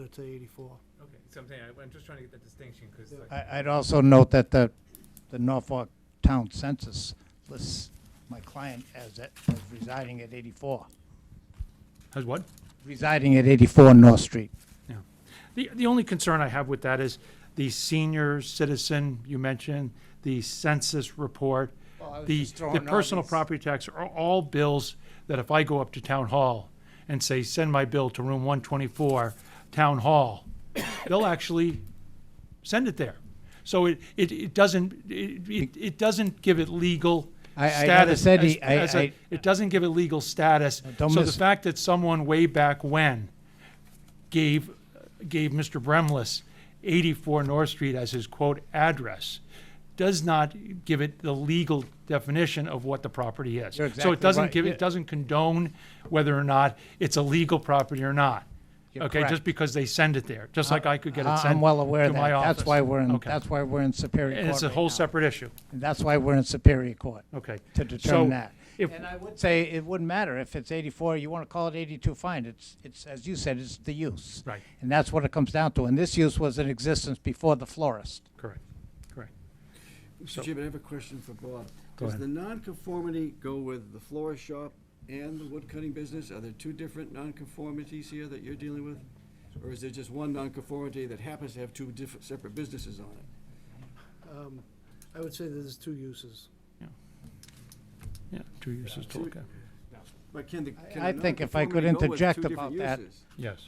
it to eighty-four. Okay, so I'm saying, I- I'm just trying to get that distinction, because like, I, I'd also note that the, the Norfolk Town Census lists my client as, at- as residing at eighty-four, How's what? residing at eighty-four North Street. Yeah. The, the only concern I have with that is the senior citizen, you mentioned, the census report, Well, I was the, just throwing the all personal these- property tax are all bills that if I go up to town hall and say, send my bill to room one twenty-four, town hall, they'll actually send it there. So it, it, it doesn't, it, it, it doesn't give it legal I- I never status. said as- he- I- as a- I- It doesn't give it legal status. Don't So the miss- fact that someone way back when gave, gave Mr. Bremlis 84 North Street as his quote address does not give it the legal definition of what the property is. You're So exactly it doesn't right, give, yeah. it doesn't condone whether or not it's a legal property or not. You're Okay, correct. just because they send it there, just like I could get it I- sent to my office. I'm well aware of that. That's why we're in, Okay. that's why we're in Superior Court And it's a right whole now. separate issue. And That's why we're in Superior Court. Okay. To determine So that. if- And I would say it wouldn't matter if it's eighty-four, you wanna call it eighty-two, fine, it's, it's, as you said, it's the use. Right. And that's what it comes down to, and this use was in existence before the florist. Correct, correct. So- Mr. Chairman, I have a question for Bob. Go Does ahead. the non-conformity go with the florist shop and the woodcutting business? Are there two different non-conformities here that you're dealing with? Or is there just one non-conformity that happens to have two different, separate businesses on it? Um, I would say there's two uses. Yeah, two uses Two- total, okay. But can the, can I the think if I could non-conformity go with two interject different about that. uses? Yes,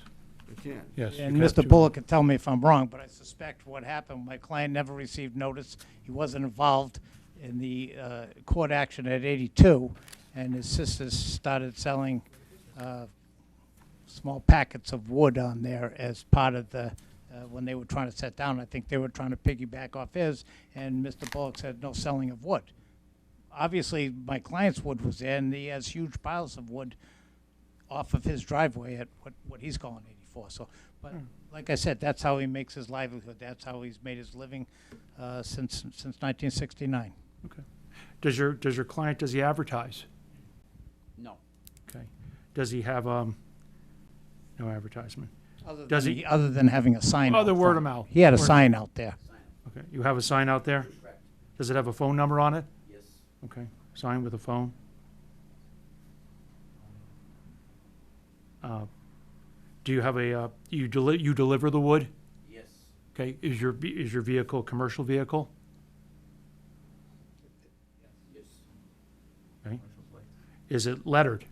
It can. yes. And you got Mr. two. Bullock can tell me if I'm wrong, but I suspect what happened, my client never received notice. He wasn't involved in the uh, court action at 82, and his sisters started selling uh, small packets of wood on there as part of the, uh, when they were trying to set down, I think they were trying to piggyback off his, and Mr. Bullock said, no selling of wood. Obviously, my client's wood was there, and he has huge piles of wood off of his driveway at what, what he's calling 84. So, but Hmm. like I said, that's how he makes his livelihood. That's how he's made his living uh, since since 1969. Okay. Does your, does your client, does he advertise? No. Okay. Does he have, um, no advertisement? Other Does than he- other than having a sign. Other out Oh, word front. of mouth. He had a Word- sign out there. Okay, you have a sign out there? Correct. Does it have a phone number on it? Yes. Okay, sign with a phone. Uh, Do you have a, uh, you deli, you deliver the wood? Yes. Okay, is your, ve- is your vehicle a commercial vehicle? Yes. Okay. Is it lettered?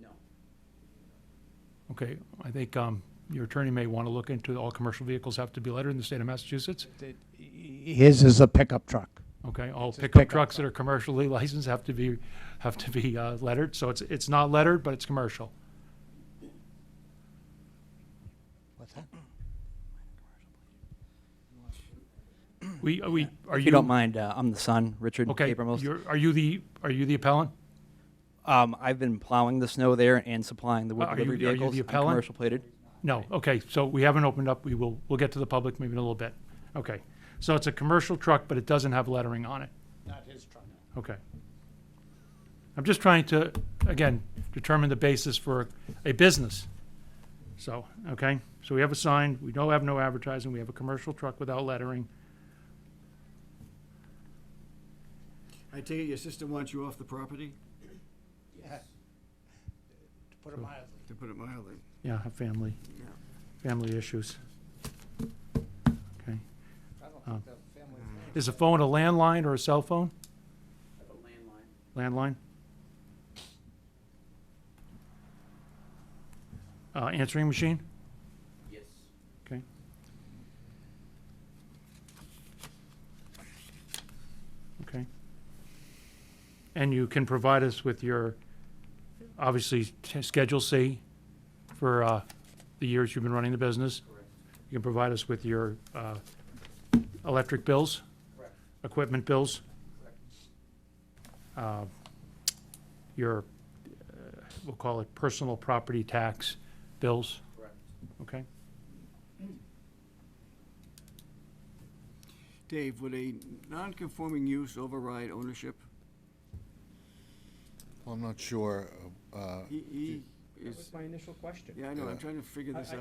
No. Okay, I think, um, your attorney may want to look into, all commercial vehicles have to be lettered in the state of Massachusetts? Th- His is a pickup truck. Okay, all a pickup pickup trucks that are commercially licensed have to be, have to be uh, lettered, so it's, it's not lettered, but it's commercial. What's that? We, are we, are you? If you don't mind, uh, I'm the son, Richard Okay, Abramos. you're, are you the, are you the appellant? Um, I've been plowing the snow there and supplying the wood Are you- delivery are you vehicles. the I'm appellant? commercial plated. No, okay, so we haven't opened up, we will, we'll get to the public maybe in a little bit. Okay, so it's a commercial truck, but it doesn't have lettering on it, Not his truck. okay. I'm just trying to, again, determine the basis for a business. So, okay, so we have a sign, we don't have no advertising, we have a commercial truck without lettering. I take it your sister wants you off the property, To put it mildly. to put it mildly? Yeah, have family, Yeah. family issues. I Okay, don't think the is the phone a landline or a cell phone? landline. Uh, answering machine? Yes. Okay. Okay. And you can provide us with your, obviously, t- Schedule C for uh, the years you've been running the business. Correct. You can provide us with your uh, electric bills, Correct. equipment bills, Correct. uh, your, uh, we'll call it personal property tax bills, Correct. okay? Dave, would a non-conforming use override ownership? Well, I'm not sure. uh, He, he, That was is, my initial question. yeah, I know, I'm trying to figure this I- out.